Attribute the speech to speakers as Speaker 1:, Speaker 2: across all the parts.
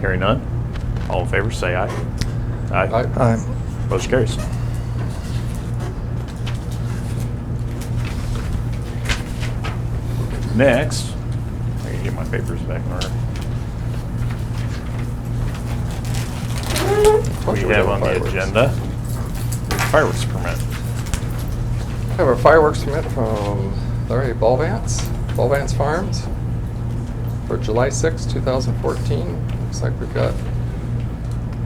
Speaker 1: Hearing none, all in favor, say aye. Aye.
Speaker 2: Aye.
Speaker 1: Motion carries. Next, I gotta get my papers back in order. We
Speaker 2: Motion to
Speaker 1: have
Speaker 2: go
Speaker 1: on the
Speaker 2: fireworks.
Speaker 1: agenda fireworks permit.
Speaker 2: I Have a fireworks permit from Um, Larry Balvance, Balvance Farms, for July sixth, two 2014. Looks like we've got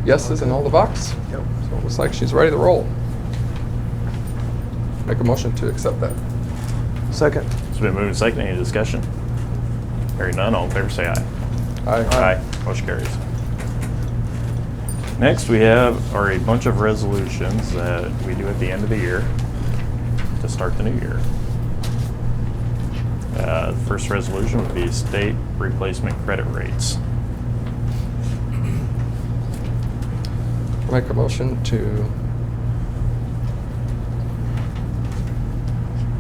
Speaker 2: yeses in all the box. Yep. So it looks like she's ready to roll. Make a motion to accept that.
Speaker 3: Second.
Speaker 1: It's been moved and seconded. Any discussion? Hearing none, all in favor, say aye.
Speaker 2: Aye.
Speaker 1: Motion carries. Next, we have, are a bunch of resolutions that we do at the end of the year to start the new year. Uh, First resolution would be state replacement credit rates.
Speaker 2: Make a motion to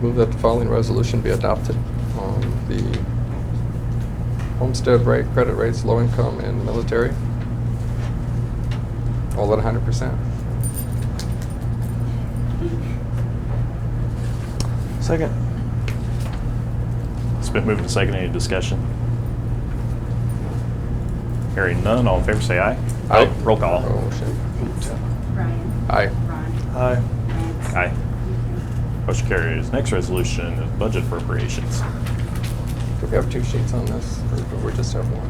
Speaker 2: move that the following resolution be adopted on the homestead rate, credit rates, low income, and military. All at hundred percent.
Speaker 3: Second.
Speaker 1: It's been moved and seconded. Any discussion? Hearing none, all in favor, say aye. Roll call.
Speaker 2: Oh, shit.
Speaker 4: Brian.
Speaker 2: Aye.
Speaker 4: Ron.
Speaker 3: Aye.
Speaker 4: Lance.
Speaker 1: Aye.
Speaker 4: Ethan.
Speaker 1: Motion carries. Next resolution is budget appropriations.
Speaker 2: Do we have two sheets on this, or do we just have one?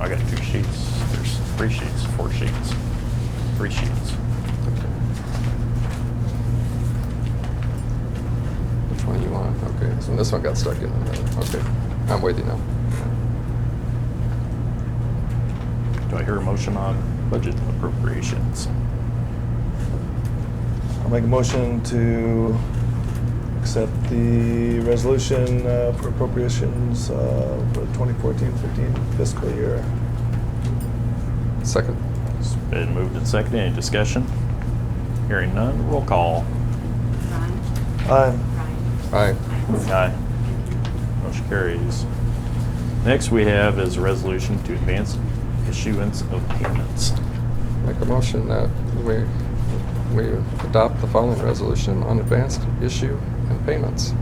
Speaker 1: I got two sheets. There's three sheets, four sheets, three sheets.
Speaker 2: Which one you want? Okay, so this one got stuck in the middle. Okay, I'm with you now.
Speaker 1: Do I hear a motion on budget appropriations?
Speaker 3: I'll make a motion to accept the resolution uh, for appropriations uh, for 2014-15 fiscal year.
Speaker 2: Second.
Speaker 1: It's been moved and seconded. Any discussion? Hearing none. Roll call.
Speaker 4: Ron.
Speaker 3: Aye.
Speaker 4: Brian.
Speaker 2: Aye.
Speaker 4: Lance.
Speaker 1: Aye.
Speaker 4: Ethan.
Speaker 1: Motion carries. Next we have is a resolution to advance issuance of payments.
Speaker 2: Make a motion that we, we adopt the following resolution on advanced issue and payments.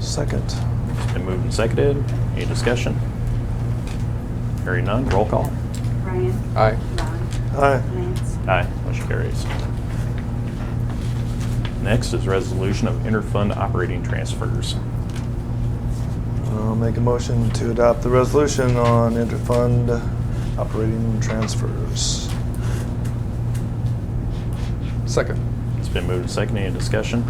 Speaker 3: Second.
Speaker 1: It's been moved and seconded. Any discussion? Hearing none. Roll call.
Speaker 4: Brian.
Speaker 2: Aye.
Speaker 4: Ron.
Speaker 3: Aye.
Speaker 4: Lance.
Speaker 1: Aye, motion carries. Next is resolution of interfund operating transfers.
Speaker 3: I'll make a motion to adopt the resolution on interfund operating transfers.
Speaker 2: Second.
Speaker 1: It's been moved and seconded. Any discussion?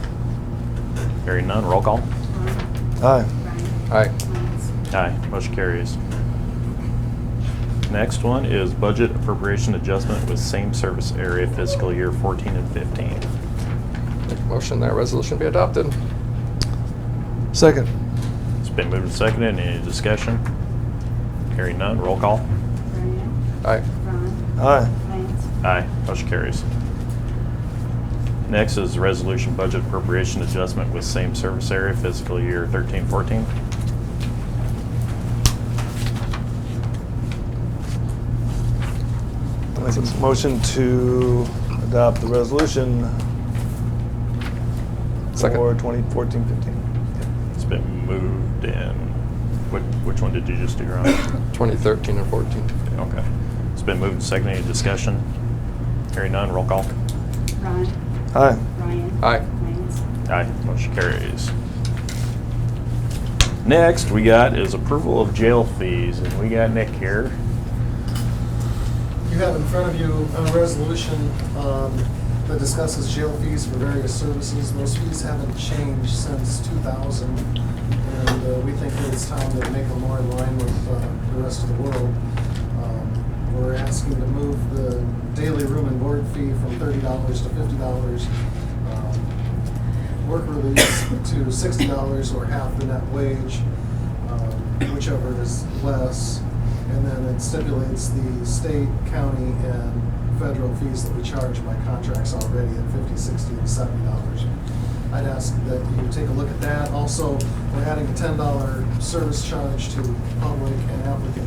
Speaker 1: Hearing none, roll call.
Speaker 4: Ron.
Speaker 3: Aye.
Speaker 4: Brian.
Speaker 2: Aye.
Speaker 4: Lance.
Speaker 1: Aye, motion carries. Next one is budget appropriation adjustment with same service area fiscal year 14 and 15.
Speaker 2: Make a motion that resolution be adopted.
Speaker 3: Second.
Speaker 1: It's been moved and seconded. Any discussion? Hearing none, roll call.
Speaker 4: Brian.
Speaker 2: Aye.
Speaker 4: Ron.
Speaker 3: Aye.
Speaker 4: Lance.
Speaker 1: Aye, motion carries. Next is resolution budget appropriation adjustment with same service area fiscal year thirteen fourteen.
Speaker 3: I'll make a motion to adopt the resolution
Speaker 2: Second.
Speaker 3: for 2014-15.
Speaker 1: It's been moved and, which, which one did you just do, Ron?
Speaker 2: 2013 and 14.
Speaker 1: Okay. It's been moved and seconded. Any discussion? Hearing none, roll call.
Speaker 4: Ron.
Speaker 3: Aye.
Speaker 4: Brian.
Speaker 2: Aye.
Speaker 4: Lance.
Speaker 1: Aye, motion carries. Next we got is approval of jail fees, and we got Nick here.
Speaker 5: You have in front of you a resolution um, that discusses jail fees for various services. Those fees haven't changed since 2000, and uh, we think that it's time to make them more in line with uh, the rest of the world. Um, We're asking to move the daily room and board fee from $30 to $50. um, Work release to $60 or half the net wage um, whichever is less. And then it stipulates the state, county, and federal fees that we charge by contracts already at fifty, sixty, and seventy dollars. I'd ask that you take a look at that. Also, we're adding a ten dollar service charge to public and applicant